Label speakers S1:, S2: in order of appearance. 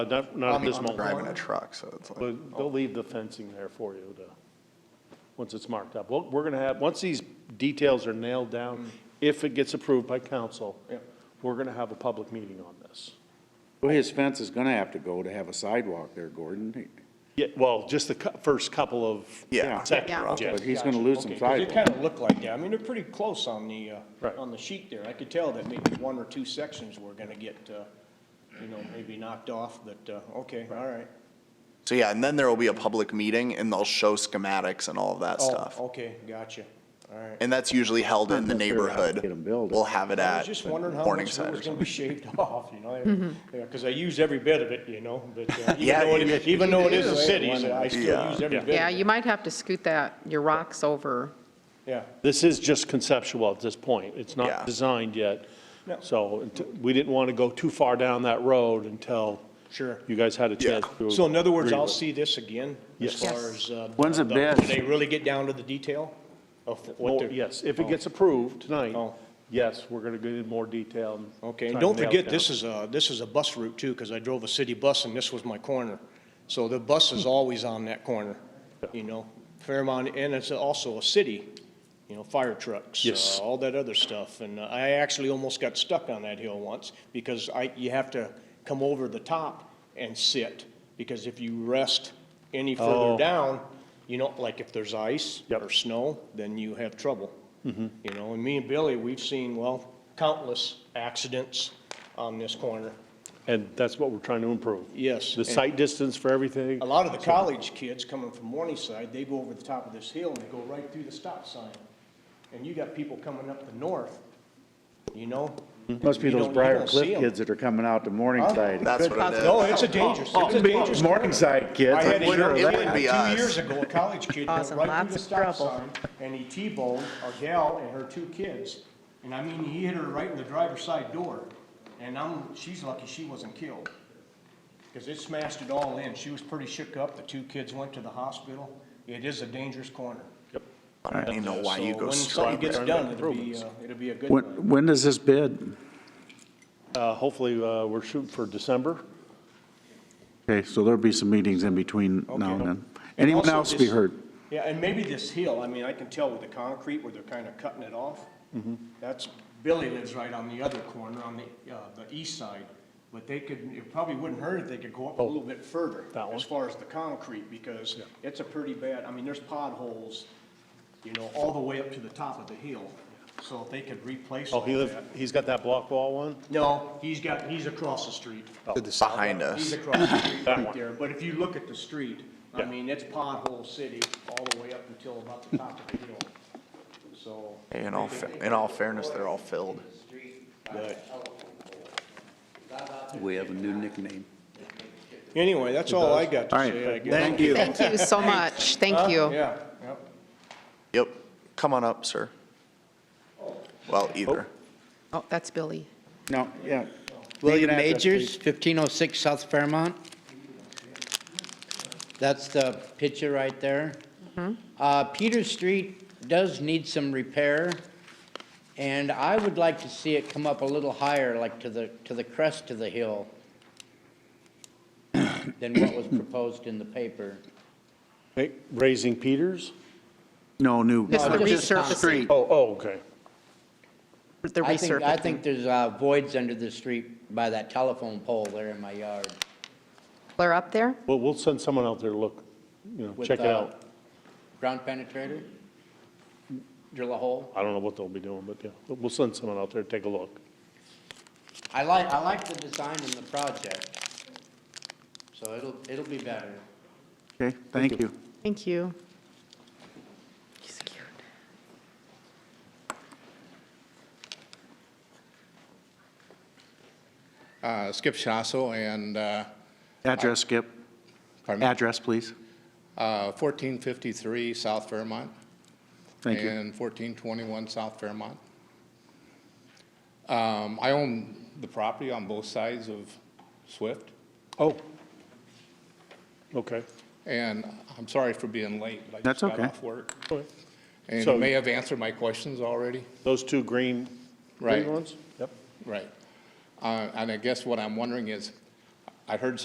S1: Uh, Not, not at
S2: I'm
S1: this
S2: I'm driving a
S1: moment.
S2: truck, so it's like,
S1: They'll they'll leave the fencing there for you to, once it's marked up. Well, we're going to have, once these details are nailed
S3: Mm.
S1: down, if it gets approved by council, we're going to have a public meeting on this.
S4: Well, his fence is gonna have to go to have a sidewalk there, Gordon,
S1: Yeah, well, just the cou- first couple of
S2: yeah.
S1: seconds,
S4: but
S1: Jess.
S4: he's gonna lose some
S3: Okay, 'cause It
S4: sidewalk.
S3: kind of looked like that. I mean, they're pretty close on the,
S1: Right.
S3: uh, on the sheet there. I could tell that maybe one or two sections were going to get, uh, you know, maybe knocked off, but, uh, okay, all right.
S2: So yeah, and then there will be a public meeting and they'll show schematics and all of that stuff.
S3: Oh, okay, gotcha, all right.
S2: And that's usually held in the neighborhood.
S4: Get 'em built.
S2: We'll have it
S3: I was
S2: at
S3: just wondering how much of
S2: Morningside
S3: it
S2: or
S3: was going
S2: something.
S3: to be shaved off, you know?
S5: Mm-hmm.
S3: Because I use every bit of it, you know, but uh, even
S2: Yeah,
S3: though
S2: you-
S3: it- even though it is a city, so I
S2: Yeah.
S3: still use every bit
S5: Yeah,
S3: of it.
S5: you might have to scoot that, your rocks over.
S3: Yeah.
S1: This is just conceptual at this point. It's
S2: Yeah.
S1: not designed yet.
S3: No.
S1: So unt- we didn't want to go too far down that road until
S3: Sure.
S1: you guys had a chance to.
S3: So in other words,
S1: agree
S3: I'll
S1: with it.
S3: see this again as
S1: Yes.
S3: far
S5: Yes.
S3: as. uh,
S4: When's the bid?
S3: Do they really get down to the detail of what
S1: More-
S3: they're?
S1: Yes, if it gets approved tonight,
S3: Oh.
S1: yes, we're going to get in more detail. and
S3: Okay,
S1: try
S3: and
S1: to
S3: don't
S1: nail it
S3: forget,
S1: down.
S3: this is a, this is a bus route too, because I drove a city bus and this was my corner. So the bus is always on that corner, you know, Fairmont, and it's also a city, you know, fire trucks. uh,
S1: Yes.
S3: All that other stuff, and uh, I actually almost got stuck on that hill once, because I, you have to come over the top and sit, because if you rest any further
S1: Oh.
S3: down, you know, like if there's ice
S1: Yep. Mm-hmm.
S3: or snow, then you have trouble. You know, and me and Billy, we've seen, well, countless accidents on this corner.
S1: And that's what we're trying to improve.
S3: Yes,
S1: The
S3: and-
S1: sight distance for everything.
S3: A lot of the college kids coming from Morningside, they go over the top of this hill and they go right through the stop sign. And you got people coming up the north, you know?
S4: Must be
S3: You
S4: those
S3: don't- you
S4: Briar
S3: don't see
S4: Cliff
S3: 'em.
S4: kids that are coming out to Morningside.
S2: That's what it is.
S3: No, it's a dangerous, it's a dangerous. corner.
S4: Morningside kids,
S3: I had
S4: I'm
S3: a
S4: sure.
S3: young
S4: of
S2: It
S4: that.
S2: wouldn't
S3: kid,
S2: be us.
S3: two years ago, a college kid went
S5: Causing
S3: right
S5: lots
S3: through the
S5: of
S3: stop
S5: trouble.
S3: sign, and he T-boned a gal and her two kids. And I mean, he hit her right in the driver's side door, and I'm, she's lucky she wasn't killed. Because it smashed it all in, she was pretty shook up, the two kids went to the hospital. It is a dangerous corner.
S2: I don't even know why you
S3: So
S2: go
S3: when
S2: straight
S3: something gets
S2: there.
S3: done, it'll be, uh, it'll be a good
S4: When,
S3: one.
S4: when does this bid?
S1: Uh, Hopefully, uh, we're shooting for December.
S4: Okay, so there'll be some meetings in between now and then. Anyone
S3: also
S4: else be
S3: this-
S4: heard?
S3: Yeah, and maybe this hill, I mean, I can tell with the concrete where they're kind of cutting it off.
S1: Mm-hmm.
S3: That's, Billy lives right on the other corner, on the, uh, the east side. But they could, it probably wouldn't hurt if they could go up a little bit further
S1: Oh. That one?
S3: as far as the concrete, because it's a pretty bad, I mean, there's potholes, you know, all the way up to the top of the hill. So if they could replace
S1: Oh,
S3: all
S1: he lives,
S3: that.
S1: he's got that block wall one?
S3: No, he's got, he's across the street.
S2: Behind
S3: He's
S2: us.
S3: across the street
S1: That
S3: right
S1: one.
S3: there, but if you look at the street, I
S1: Yeah.
S3: mean, it's pothole city all the way up until about the top of the hill. So,
S2: In all, fa- in all fairness, they're all filled.
S6: We have a new nickname.
S3: anyway, that's all I got to
S4: All right,
S3: say, I guess.
S4: thank you.
S5: Thank you so much, thank you.
S3: Yeah, yep.
S2: Yep. Come on up, sir. Well, either.
S5: Oh, that's Billy.
S4: No, yeah.
S6: William
S4: Name and address,
S6: Majors, 1506 South Fairmont. That's the picture right there.
S5: Mm-hmm.
S6: Uh, Peter Street does need some repair, and I would like to see it come up a little higher, like to the, to the crest of the hill than what was proposed in the paper.
S1: Hey, Raising Peters?
S4: No, new.
S5: Just the
S6: No, just the
S5: resurfacing,
S6: street.
S1: Oh, oh, okay.
S5: the
S6: I think, I think
S5: resurfacing.
S6: there's uh, voids under the street by that telephone pole there in my yard.
S5: Clear up there?
S1: Well, we'll send someone out there to look, you know,
S6: with,
S1: check it
S6: uh,
S1: out.
S6: Ground penetrator? Drill a hole?
S1: I don't know what they'll be doing, but yeah, but we'll send someone out there, to take a look.
S6: I like, I like the design in the project. So it'll, it'll be better.
S4: Okay, thank you.
S5: Thank you. He's cute.
S7: Uh, Skip Shasso and uh,
S4: Address, Skip.
S7: pardon me,
S4: Address, please.
S7: uh, 1453 South Fairmont
S4: Thank you.
S7: and 1421 South Fairmont. Um, I own the property on both sides of Swift,
S1: Oh. Okay.
S7: and I'm sorry for being late. but
S4: That's
S7: I just
S4: okay.
S7: got off work,
S1: Okay.
S7: and
S1: So-
S7: you may have answered my questions already.
S1: Those two green, green
S7: Right.
S1: ones? Yep.
S7: Right. Uh, And I guess what I'm wondering is, I heard